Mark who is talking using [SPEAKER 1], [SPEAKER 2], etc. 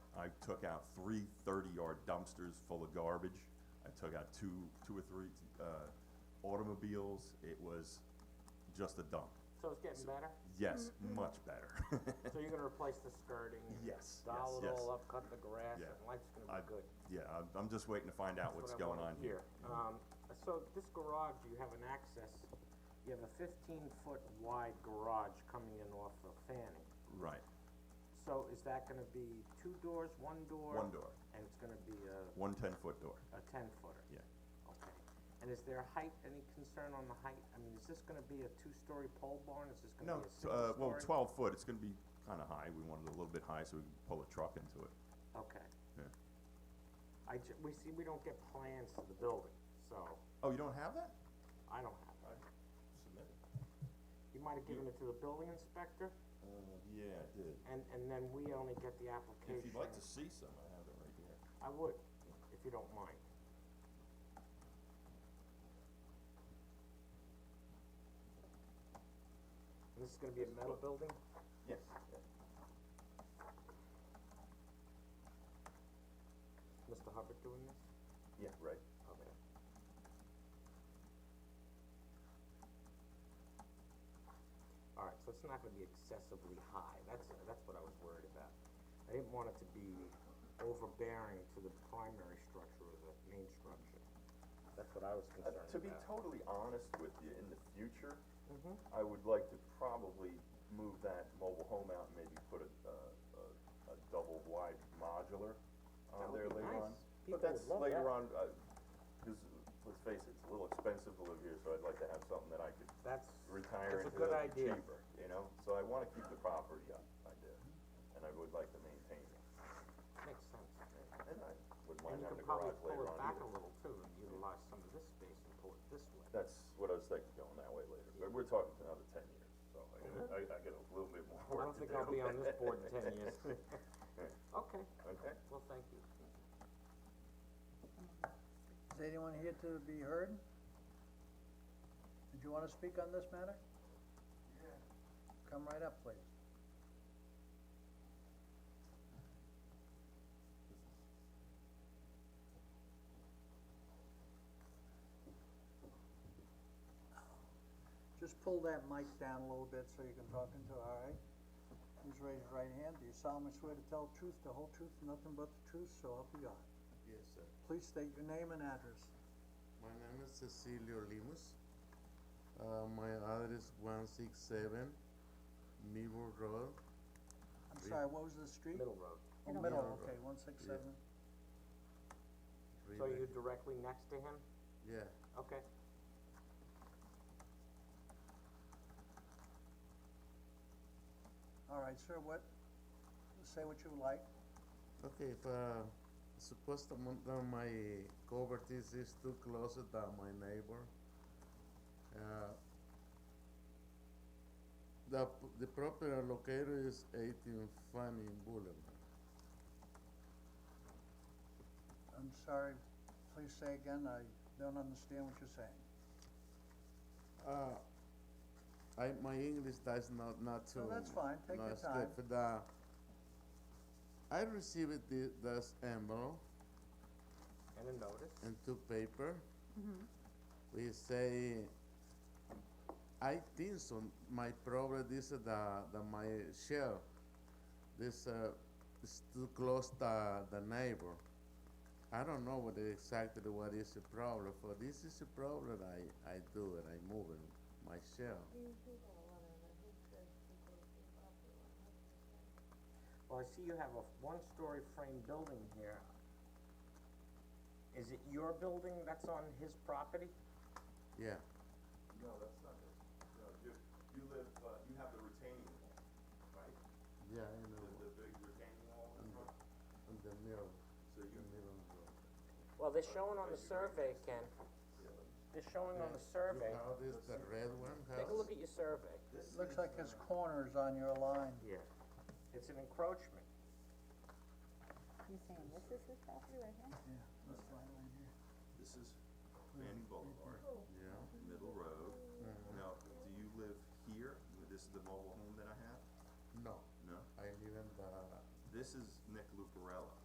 [SPEAKER 1] I took out three thirty-yard dumpsters full of garbage. I took out two, two or three, uh, automobiles. It was just a dump.
[SPEAKER 2] So it's getting better?
[SPEAKER 1] Yes,
[SPEAKER 2] Mm-hmm.
[SPEAKER 1] much better.
[SPEAKER 2] So you're gonna replace the skirting? and
[SPEAKER 1] Yes, yes,
[SPEAKER 2] Dial it
[SPEAKER 1] yes.
[SPEAKER 2] all up, cut the grass,
[SPEAKER 1] Yeah.
[SPEAKER 2] and life's
[SPEAKER 1] I,
[SPEAKER 2] gonna be good.
[SPEAKER 1] yeah, I'm, I'm just waiting to find out what's
[SPEAKER 2] That's what I
[SPEAKER 1] going
[SPEAKER 2] wanna
[SPEAKER 1] on here.
[SPEAKER 2] hear. Um, so this garage, you have an access, you have a fifteen-foot wide garage coming in off of Fanning.
[SPEAKER 1] Right,
[SPEAKER 2] So is that gonna be two doors, one door?
[SPEAKER 1] One door.
[SPEAKER 2] And it's gonna be a,
[SPEAKER 1] one ten-foot door,
[SPEAKER 2] a ten-footer?
[SPEAKER 1] yeah.
[SPEAKER 2] Okay. And is there height, any concern on the height? I mean, is this gonna be a two-story pole barn? Is this gonna
[SPEAKER 1] No,
[SPEAKER 2] be a
[SPEAKER 1] t-
[SPEAKER 2] single story?
[SPEAKER 1] uh, well, twelve foot, it's gonna be kinda high. We wanted it a little bit high so we could pull a truck into it,
[SPEAKER 2] Okay.
[SPEAKER 1] yeah.
[SPEAKER 2] I ju- we see, we don't get plans to the building, so
[SPEAKER 1] Oh, you don't have that?
[SPEAKER 2] I don't have it.
[SPEAKER 1] Submit it.
[SPEAKER 2] You might have given it to the building inspector,
[SPEAKER 1] Uh, yeah, I did.
[SPEAKER 2] and, and then we only get the application.
[SPEAKER 1] If you'd like to see some, I have it right here.
[SPEAKER 2] I would, if you don't mind. And This is gonna be a metal building?
[SPEAKER 1] Yes.
[SPEAKER 2] Mr. Hubbard doing this?
[SPEAKER 1] Yeah, right.
[SPEAKER 2] Okay. Alright, so it's not gonna be excessively high, that's, that's what I was worried about. I didn't want it to be overbearing to the primary structure or the main structure. That's what I was
[SPEAKER 3] Uh,
[SPEAKER 2] concerned
[SPEAKER 3] To
[SPEAKER 2] about.
[SPEAKER 3] be totally honest with you, in the future,
[SPEAKER 2] Mm-hmm.
[SPEAKER 3] I would like to probably move that mobile home out and maybe put a, a, a, a double wide modular
[SPEAKER 2] That
[SPEAKER 3] on there
[SPEAKER 2] would be
[SPEAKER 3] later
[SPEAKER 2] nice.
[SPEAKER 3] on. But
[SPEAKER 2] People
[SPEAKER 3] that's
[SPEAKER 2] would love
[SPEAKER 3] later on,
[SPEAKER 2] that.
[SPEAKER 3] uh, cause uh, let's face it, it's a little expensive to live here, so I'd like to have something that I could
[SPEAKER 2] That's,
[SPEAKER 3] retire
[SPEAKER 2] that's a
[SPEAKER 3] into
[SPEAKER 2] good idea.
[SPEAKER 3] cheaper, you know? So I wanna keep the property up, I do, and I would like to maintain it.
[SPEAKER 2] Makes sense.
[SPEAKER 3] And I wouldn't mind
[SPEAKER 2] And you
[SPEAKER 3] having a
[SPEAKER 2] could probably
[SPEAKER 3] garage
[SPEAKER 2] pull
[SPEAKER 3] later
[SPEAKER 2] it
[SPEAKER 3] on
[SPEAKER 2] back
[SPEAKER 3] either.
[SPEAKER 2] a little too and utilize some of this space and pull it this way.
[SPEAKER 3] That's what I was thinking, going that way later, but we're talking another ten years, so I gotta, I, I got a little bit more
[SPEAKER 2] I
[SPEAKER 3] work to do.
[SPEAKER 2] don't think I'll be on this board in ten years. Okay,
[SPEAKER 3] Okay,
[SPEAKER 2] well, thank you.
[SPEAKER 4] Is anyone here to be heard? Did you wanna speak on this matter? Yeah. Come right up, please. Just pull that mic down a little bit so you can talk into, it, all right? Please raise your right hand. Do you solemnly swear to tell the truth, the whole truth, and nothing but the truth, so help you God?
[SPEAKER 5] Yes, sir.
[SPEAKER 4] Please state your name and address.
[SPEAKER 5] My name is Cecilio Limus. Uh, my address one six seven Mivo Road.
[SPEAKER 4] I'm
[SPEAKER 5] Three.
[SPEAKER 4] sorry, what was the street?
[SPEAKER 2] Middle road.
[SPEAKER 4] Oh, middle,
[SPEAKER 5] Middle.
[SPEAKER 4] okay, one six
[SPEAKER 5] Yeah.
[SPEAKER 4] seven.
[SPEAKER 2] So
[SPEAKER 5] Ribe-
[SPEAKER 2] you're directly next to him?
[SPEAKER 5] Yeah,
[SPEAKER 2] Okay.
[SPEAKER 4] All right, sir, what, say what you would like.
[SPEAKER 5] okay, if, uh, supposed to mon- uh, my covert is, is too close to my neighbor. Uh, the, p- the property located is eighteen Fanning Boulevard.
[SPEAKER 4] I'm sorry, please say again, I don't understand what you're saying.
[SPEAKER 5] Uh, I, my English does not, not too.
[SPEAKER 4] No, that's fine. Take your
[SPEAKER 5] not stiff,
[SPEAKER 4] time.
[SPEAKER 5] But, uh, I received the, this envelope
[SPEAKER 2] And a notice?
[SPEAKER 5] and two paper. We say, I think so, my problem is the, the, my shell, this, uh, is too close to the neighbor. I don't know what exactly what is the problem, for this is the problem, I, I do it, I move it, my shell.
[SPEAKER 2] Well, I see you have a one-story frame building here. Is it your building that's on his property?
[SPEAKER 5] Yeah,
[SPEAKER 1] No, that's not it. No, you, you live, uh, you have the retaining wall, right?
[SPEAKER 5] yeah, I know,
[SPEAKER 1] The, the big retaining wall in front,
[SPEAKER 5] in the middle,
[SPEAKER 1] so you,
[SPEAKER 5] the middle road.
[SPEAKER 2] Well, they're showing on the survey, Ken. They're showing on the survey.
[SPEAKER 5] How this, the red one
[SPEAKER 2] Take a look at
[SPEAKER 5] house?
[SPEAKER 2] your survey.
[SPEAKER 4] Looks like his corner's on your line.
[SPEAKER 2] Yeah. It's an encroachment.
[SPEAKER 6] You saying this is his property right here?
[SPEAKER 4] Yeah, that's right, right here.
[SPEAKER 1] this is Fanning Boulevard,
[SPEAKER 5] Yeah,
[SPEAKER 1] Middle Road.
[SPEAKER 2] Mm-hmm.
[SPEAKER 1] Now, do you live here? This is the mobile home that I have?
[SPEAKER 5] no,
[SPEAKER 1] No?
[SPEAKER 5] I uh, live in the,
[SPEAKER 1] This is Nick Lucarelli.